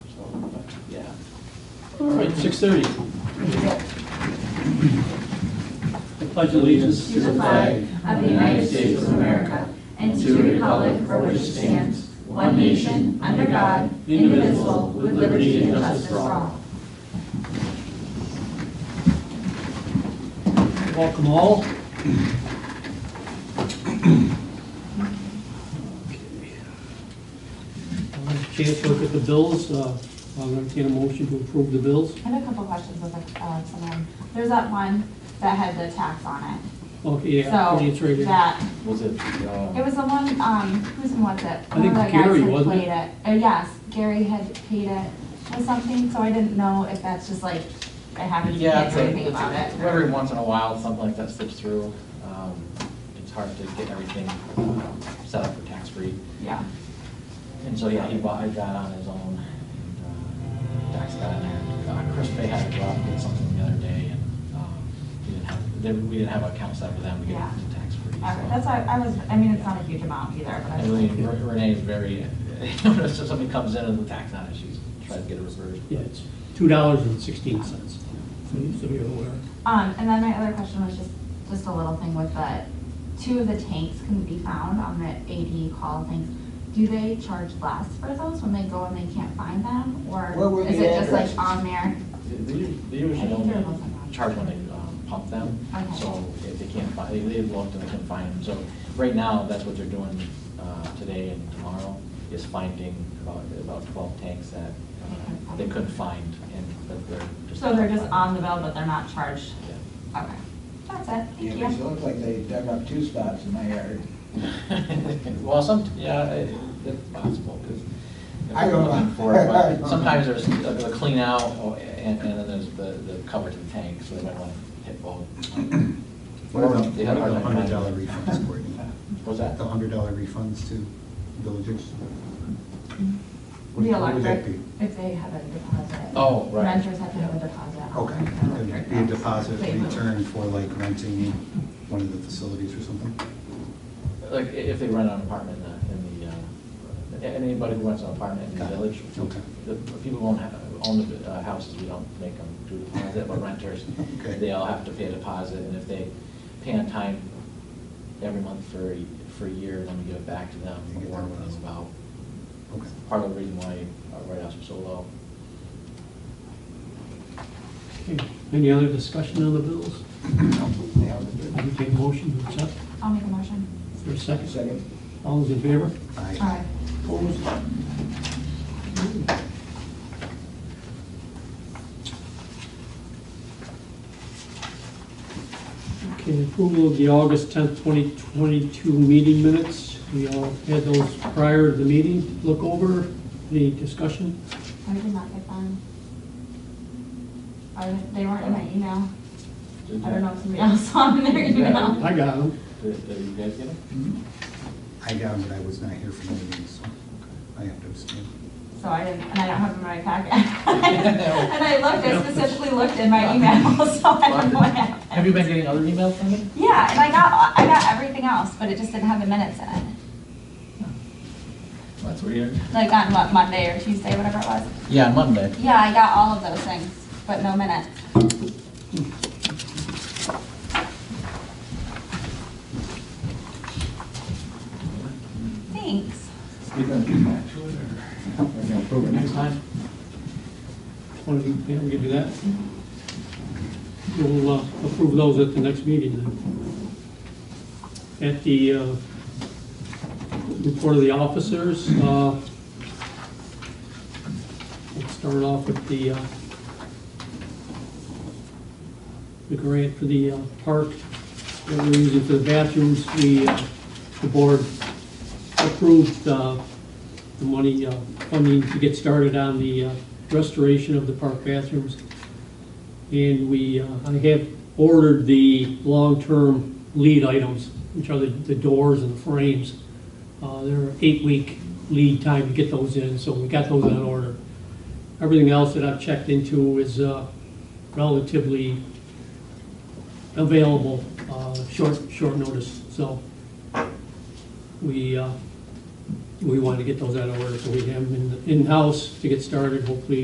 All right, six thirty. Pledge allegiance. to the flag of the United States of America and to the republic for which it stands, one nation, under God, indivisible, with liberty and justice for all. Welcome all. I'll have a Chance to look at the bills. Uh, I'll entertain a motion to approve the bills. I have a couple questions with uh, someone. There's that one that had the tax on it. Okay, yeah, So it's right here. that, Was it, it uh, was the one, um, who's in what's it? I think One of the guys Gary, had wasn't paid Uh, yes, Gary had paid it or something, so I didn't know if that's just like, I haven't, yeah, can't it's do a- anything it's about it. a- every once in a while, something like that slips through. Um, It's hard to get everything uh, set up for tax-free. Yeah, And so, yeah, he bought, he got on his own, and uh, taxed that in there. Uh, Chris Bay had to go out and get something the other day, and um, we didn't have, they- we didn't have an account set up with them to get Yeah. it tax-free. All right. so. that's why, I was, I mean, it's not a huge amount either, but I And was like, really, Re- Renee is very, so somebody comes in and the tax on it, she's trying to get it reversed. Yeah, it's two dollars and sixteen cents. So you're aware. Um, and then my other question was just, just a little thing with the, two of the tanks couldn't be found on the AD call things. Do they charge less for those when they go and they can't find them, Where were or is the it just like addresses? on there? They usu- they usually don't charge when they um, pump them, Okay. so if they can't find, they- they've looked and they can't find them. So right now, that's what they're doing uh, today and tomorrow, is finding about, about twelve tanks that uh, they couldn't find and that they're just. So they're just on the bill, but they're not charged? Yeah. Okay, that's it, thank Yeah, 'cause it you. looked like they dug up two spots in my yard. Well, some, yeah, it- it's possible, because. I don't know. Sometimes there's uh, the clean out, oh, and, and then there's the, the cover to the tank, so they might want to hit both. What about, They had what a about the hard hundred time dollar finding it. refunds, Courtney? What's that? The hundred dollar refunds to villagers? What- The what would that electric, be? if they have a deposit. Oh, right. Renters have to have a deposit. on Okay, their electric it'd be a bill. deposit They move. return for like renting one of the facilities or something? Like, i- if they rent an apartment in the, in the, uh, a- anybody who rents an apartment in the Got it. village, Okay. the people who own, ha- own the uh, houses, we don't make them do deposit, but renters, Okay. they all have to pay a deposit, and if they pay on time every month for, a- for a year, then we give it back to them, They get or their when it's deposit. about. Okay. Part of the reason why our write-offs are so low. Okay. Any other discussion on the bills? Yeah, it was I good. can take a motion to accept I'll make a motion. for a second. Second, All those in favor? I- All right. Opposed? Okay, approval of the August tenth, twenty twenty-two meeting minutes. We all had those prior to the meeting. Look over, any discussion? I did not get them. I, they weren't in my email. I don't know if somebody else saw them in their email. I got them. Did, did you guys get them? I got it, but I was not here for the meeting, so I have to abstain. So I didn't, and I don't have them in my packet. And I looked, I specifically looked in my email, so I don't know what happened. Have you been getting other emails from me? Yeah, and I got, I got everything else, but it just didn't have the minutes in it. That's weird. Like on what, Monday or Tuesday, whatever it was. Yeah, on Monday. Yeah, I got all of those things, but no minutes. Thanks. you're gonna do that. We're gonna approve it Next next time. time? Want to, yeah, we can do that. We'll uh, approve those at the next meeting then. At the uh, report of the officers, uh, we'll start off with the, uh, the grant for the uh, park that we're using for the bathrooms. We, uh, the board approved uh, the money, uh, funding to get started on the uh, restoration of the park bathrooms. And we, uh, I have ordered the long-term lead items, which are the the doors and the frames. Uh, They're eight-week lead time to get those in, so we got those on order. Everything else that I've checked into is uh, relatively available, uh, short, short notice. So we, uh, we want to get those out of order, so we have them in- in-house to get started, hopefully